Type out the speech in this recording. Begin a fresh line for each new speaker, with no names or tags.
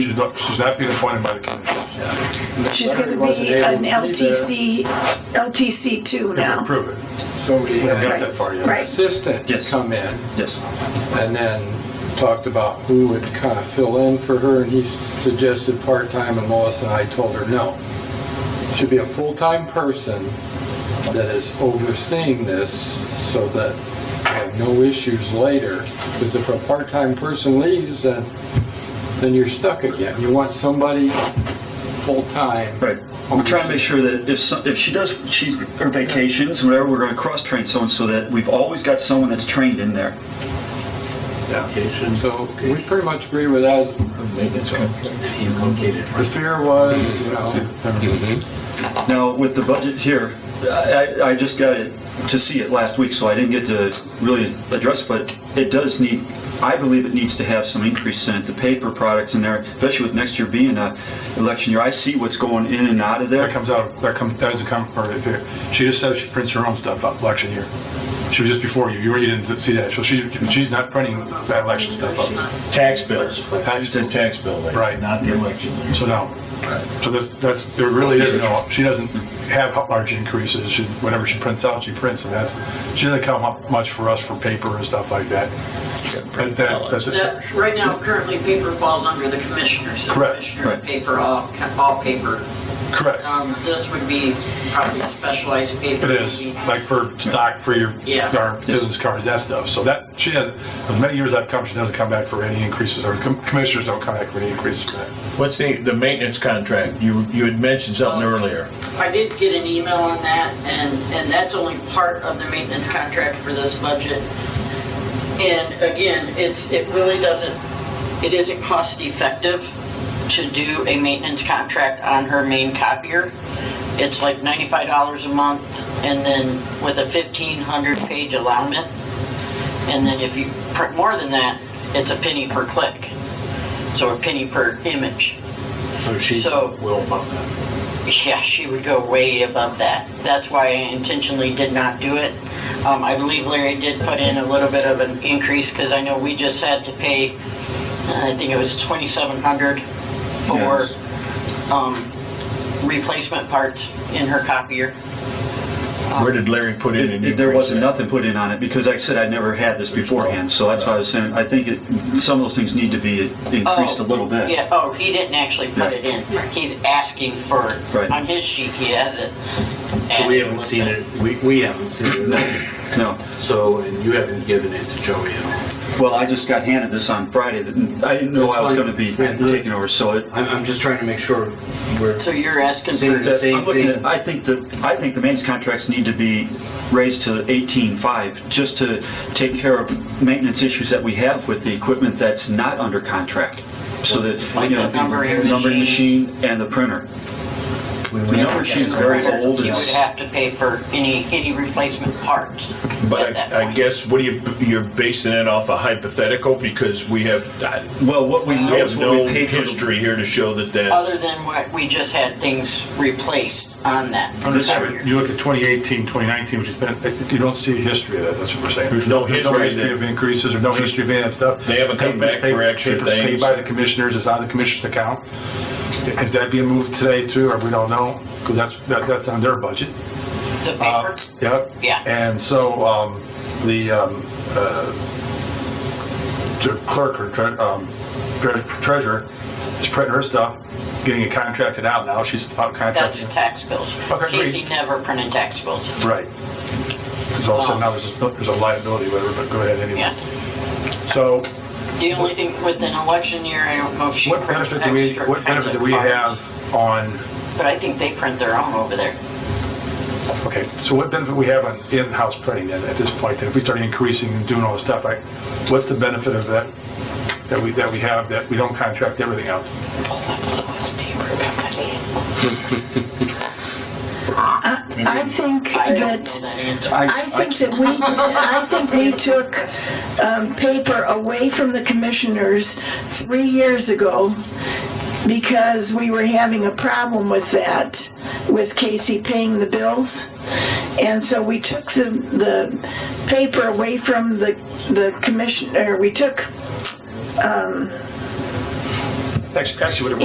She's not, she's not being appointed by the commission.
She's going to be an LTC, LTC two
If we
now.
approve it,
Somebody
we haven't got
had
that far yet.
an
Right.
assistant
Yes.
come in
Yes.
and then talked about who would kind of fill in for her, and he suggested part-time, and Lois and I told her no. Should be a full-time person that is overseeing this so that we have no issues later. Because if a part-time person leaves, then, then you're stuck again. You want somebody full-time.
Right. We're trying to make sure that if, some- if she does, she's, her vacations, whatever, we're gonna cross-train someone so that we've always got someone that's trained in there.
And So we pretty much agree with that.
He's located
The fear was, you know,
Now, with the budget here, I, I just got it to see it last week, so I didn't get to really address, but it does need, I believe it needs to have some increase in it, the paper products in there, especially with next year being a election year. I see what's going in and out of there.
That comes out, that comes, that doesn't come from her here. She just says she prints her own stuff up election year. She was just before you, you were- you didn't see that, so she, she's not printing that election stuff up.
Tax bills, tax to tax bill. rate,
Right.
Not the election.
So no, so this, that's, there really is no, she doesn't have large increases, she, whatever she prints out, she prints, and that's, she doesn't come up much for us for paper and stuff like that. But that, that's it.
That, right now, currently, paper falls under the commissioners. so
Correct,
Commissioners
right.
paper, all, all paper.
correct.
Um, this would be probably specialized paper.
It is,
maybe.
like for stock for your,
Yeah.
our business cards, that stuff. So that, she has, as many years I've come, she doesn't come back for any increases, or com- commissioners don't come back for any increases for that.
What's the, the maintenance contract? You, you had mentioned something earlier.
I did get an email on that, and, and that's only part of the maintenance contract for this budget. And again, it's, it really doesn't, it isn't cost effective to do a maintenance contract on her main copier. It's like ninety-five dollars a month, and then with a fifteen hundred page allowment. And then if you print more than that, it's a penny per click, so a penny per image.
So she's
So-
well above that.
Yeah, she would go way above that. That's why I intentionally did not do it. Um, I believe Larry did put in a little bit of an increase because I know we just had to pay, uh, I think it was twenty-seven hundred for,
Yes.
um, replacement parts in her copier.
Where did Larry put in an
It-
increase?
it- There wasn't
at?
nothing put in on it, because like I said, I'd never had this beforehand, so that's why I was saying, I think it, some of those things need to be increased a little bit.
Yeah, oh, he didn't actually put it in. He's asking for,
Right.
on his sheet, he has it.
So we haven't seen it, we, we haven't seen it,
No,
so, and you haven't given it to Joey at all.
well, I just got handed this on Friday, that- I didn't know
That's
I was
fine.
gonna be
Yeah, no.
taking over, so it,
I'm, I'm just trying to make sure we're,
So you're asking
Same
for,
The same
I'm looking at,
thing.
I think that, I think the maintenance contracts need to be raised to eighteen-five, just to take care of maintenance issues that we have with the equipment that's not under contract. So that,
Like
you know,
the numbering
numbering
machines.
machine and the printer.
we
The
went
number machine's very old.
you would
It's-
have to pay for any, any replacement parts at
But
that
I, I
point.
guess, what do you, you're basing it off a hypothetical because we have, I-
Well, what we know
we
is
have
what
no
we paid for. the-
history here to show that that,
other than what we just had things replaced on that.
Understood.
figure.
You look at 2018, 2019, which has been, you don't see a history of that, that's what we're saying.
There's no history that-
of increases, or no history of any of that stuff.
They haven't come back for
Papers-
extra
papers paid
things.
by the commissioners, it's on the commissioner's account. If that be moved today too, or we don't know, because that's, that- that's on their budget.
The
uh,
paper,
Yep.
Yeah.
And so um, the um, uh, the clerk or tre- um, tre- treasurer is printing her stuff, getting it contracted out now. She's out contracting.
that's tax bills.
Okay,
Casey never printed tax bills.
right. Because all of a sudden now there's a, there's a liability, whatever. But go ahead anyway.
Yeah.
So
The only thing with an election year, I don't know if she
what
prints
benefit do we
extra
what
kinds
benefit do
of
we
cards.
have on?
But I think they print their own over there.
Okay, so what benefit we have on in-house printing then at this point? Then if we start increasing and doing all this stuff, like, what's the benefit of that? That we, that we have, that we don't contract everything out?
Pull that Lewis paper company.
I think
I don't know
that,
that answer.
I think that we, I think we took um, paper away from the commissioners three years ago because we were having a problem with that, with Casey paying the bills. And so we took the, the paper away from the, the commissioner, we took
Actually, actually, what it